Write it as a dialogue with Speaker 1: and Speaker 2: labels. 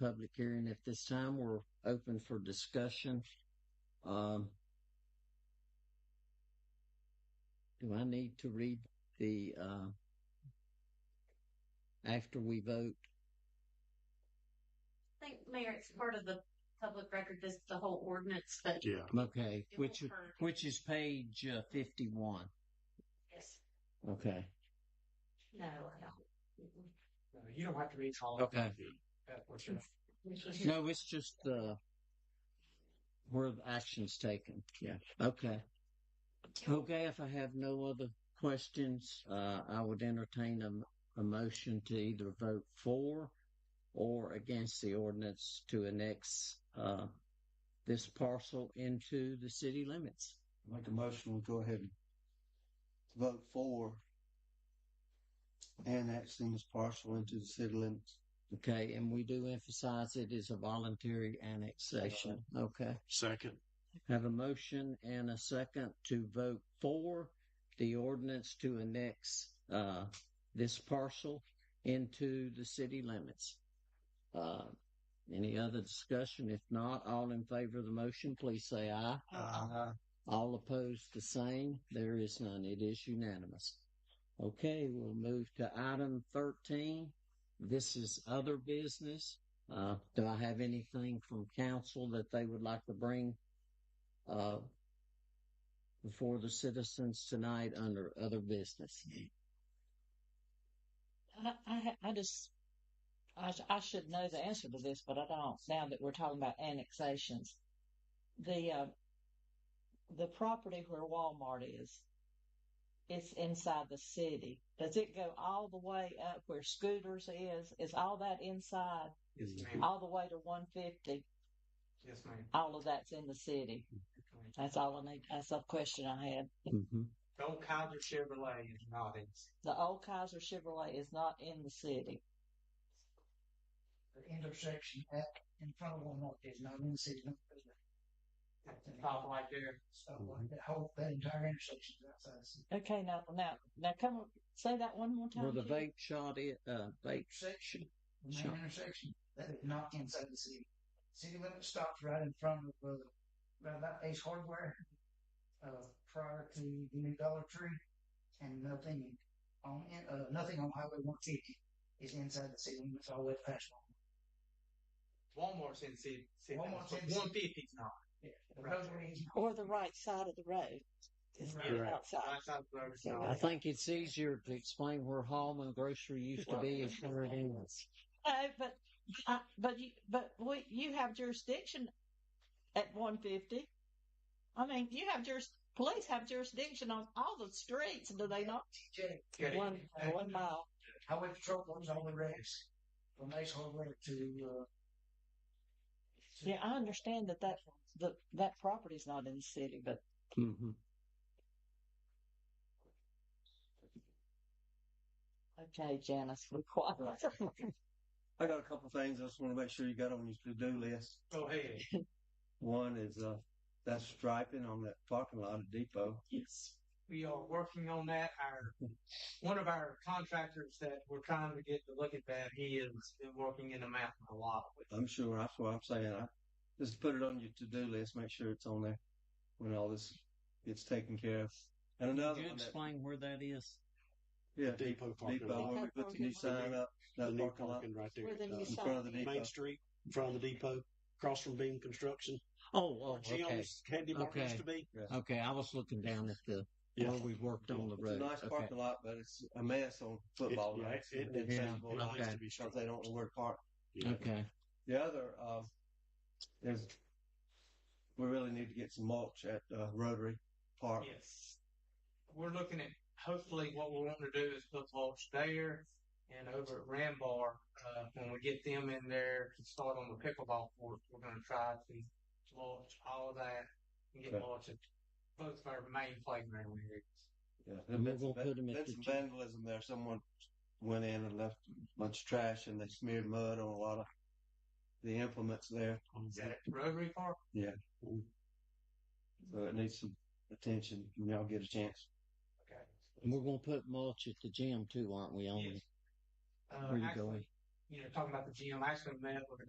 Speaker 1: public hearing at this time. We're open for discussion. Um, do I need to read the, uh, after we vote?
Speaker 2: I think, Mayor, it's part of the public record, this, the whole ordinance, but.
Speaker 3: Yeah.
Speaker 1: Okay,
Speaker 2: it
Speaker 1: which,
Speaker 2: will hurt.
Speaker 1: which is page uh, 51.
Speaker 2: Yes,
Speaker 1: Okay.
Speaker 2: no, I don't.
Speaker 4: No, Uh, You don't have to read all of
Speaker 1: Okay.
Speaker 4: that, what you're-
Speaker 1: No, it's just, uh, where the action's taken. Yeah. Okay. Okay, if I have no other questions, uh, I would entertain a, m- a motion to either vote for or against the ordinance to annex, uh, this parcel into the city limits.
Speaker 5: Make a motion, we'll go ahead and vote for annexing this parcel into the city limits.
Speaker 1: Okay, and we do emphasize it is a voluntary annexation. Okay.
Speaker 3: Second.
Speaker 1: Have a motion and a second to vote for the ordinance to annex, uh, this parcel into the city limits. Uh, any other discussion? If not, all in favor of the motion, please say aye. All opposed, the same. There is none. It is unanimous. Okay, we'll move to item 13. This is other business. Uh, do I have anything from council that they would like to bring, uh, before the citizens tonight under other business?
Speaker 6: I, I, ha- I just, I, sh- I should know the answer to this, but I don't. Now that we're talking about annexations, the uh, the property where Walmart is, it's inside the city. Does it go all the way up where Scooters is? Is all that inside,
Speaker 4: Yes, ma'am.
Speaker 6: all the way to 150?
Speaker 4: Yes, ma'am.
Speaker 6: All of that's in the city. That's all I need. That's a question I had.
Speaker 1: Mm-hmm.
Speaker 4: The old Kaiser Chevrolet is not in.
Speaker 6: The old Kaiser Chevrolet is not in the city.
Speaker 7: the intersection at in front of Walmart is not in the city limits.
Speaker 4: At the top right there.
Speaker 7: So like that whole, that entire intersection is outside the city.
Speaker 6: Okay, now, now, now, come on, say that one more time.
Speaker 1: Where the
Speaker 6: Keith.
Speaker 1: vape shot is, uh, vape
Speaker 7: Intersection, the
Speaker 1: Sure.
Speaker 7: main intersection, that is not inside the city. City limit stops right in front of, uh, right about Ace Hardware, uh, prior to the new Dollar Tree. And nothing on, uh, nothing on Highway one fifty is inside the city limits all the way past Walmart.
Speaker 4: Walmart's in city. city
Speaker 7: Walmart's in
Speaker 4: One fifty's not.
Speaker 7: The Rosary is
Speaker 6: Or the right side of the road. It's not
Speaker 4: Right.
Speaker 6: outside.
Speaker 4: Right side of the road is
Speaker 1: I
Speaker 4: not.
Speaker 1: think it's easier to explain where Hallman Grocery used to be and where it is.
Speaker 6: Uh, but, uh, but you, but we, you have jurisdiction at one fifty. I mean, you have juris, police have jurisdiction on all the streets, do they not?
Speaker 7: J.
Speaker 4: Good.
Speaker 6: One, one mile.
Speaker 7: Highway patrol runs all the roads from Ace Hardware to, uh,
Speaker 6: Yeah, I understand that that, the, that property's not in the city, but
Speaker 1: Mm-hmm.
Speaker 6: okay, Janice, we quiet.
Speaker 5: I got a couple things I just want to make sure you got on your to-do list.
Speaker 4: Go ahead.
Speaker 5: One is, uh, that striping on that parking lot at Depot.
Speaker 6: Yes.
Speaker 4: We are working on that. Our, one of our contractors that we're trying to get to look at that, he has been working in the mountain a lot with.
Speaker 5: I'm sure, that's what I'm saying. I just put it on your to-do list, make sure it's on there when all this gets taken care of. And
Speaker 1: Could
Speaker 5: another
Speaker 1: you
Speaker 5: one, that-
Speaker 1: explain where that is?
Speaker 5: yeah,
Speaker 3: Depot parking
Speaker 5: Depot,
Speaker 3: lot.
Speaker 5: where we put the new sign up,
Speaker 3: The
Speaker 5: that
Speaker 3: new
Speaker 5: parking lot
Speaker 3: parking right there. Uh,
Speaker 6: Where the
Speaker 5: in
Speaker 6: new
Speaker 5: front of the
Speaker 6: sign is.
Speaker 5: depot.
Speaker 3: Main Street, in front of the depot, across from Beam Construction.
Speaker 1: Oh, oh,
Speaker 3: where
Speaker 1: okay.
Speaker 3: Jim's Candy Market
Speaker 1: Okay.
Speaker 3: used to be.
Speaker 1: Okay, I was looking down at the,
Speaker 3: Yeah.
Speaker 1: where we worked on the
Speaker 5: It's a
Speaker 1: road.
Speaker 5: nice
Speaker 1: Okay.
Speaker 5: parking lot, but it's a mess on
Speaker 3: It-
Speaker 5: football
Speaker 3: yeah,
Speaker 5: nights.
Speaker 3: It, it,
Speaker 1: Yeah,
Speaker 3: it likes
Speaker 1: okay.
Speaker 3: to be
Speaker 5: because
Speaker 3: strong.
Speaker 5: they don't know where to park.
Speaker 3: Yeah.
Speaker 1: Okay.
Speaker 5: The other um, is we really need to get some mulch at uh, Rotary Park.
Speaker 4: Yes. We're looking at, hopefully what we're wanting to do is put mulch there and over at Rambar, uh, when we get them in there to start on the pickleball court, we're gonna try to mulch all of that and get
Speaker 5: Okay.
Speaker 4: mulch at both of our main playground areas.
Speaker 5: Yeah,
Speaker 1: And we're
Speaker 5: there's
Speaker 1: gonna
Speaker 5: been,
Speaker 1: put 'em at
Speaker 5: been
Speaker 1: the
Speaker 5: some
Speaker 1: gym.
Speaker 5: vandalism there. Someone went in and left a bunch of trash, and they smeared mud on a lot of the implements there.
Speaker 4: Is that at Rotary Park?
Speaker 5: So it needs some attention. when Y'all get a chance.
Speaker 4: Okay.
Speaker 1: And we're gonna put mulch at the gym too, aren't we? On
Speaker 4: Yes. Uh,
Speaker 1: Where you
Speaker 4: actually,
Speaker 1: going?
Speaker 4: You know, talking about the gym, I actually met with a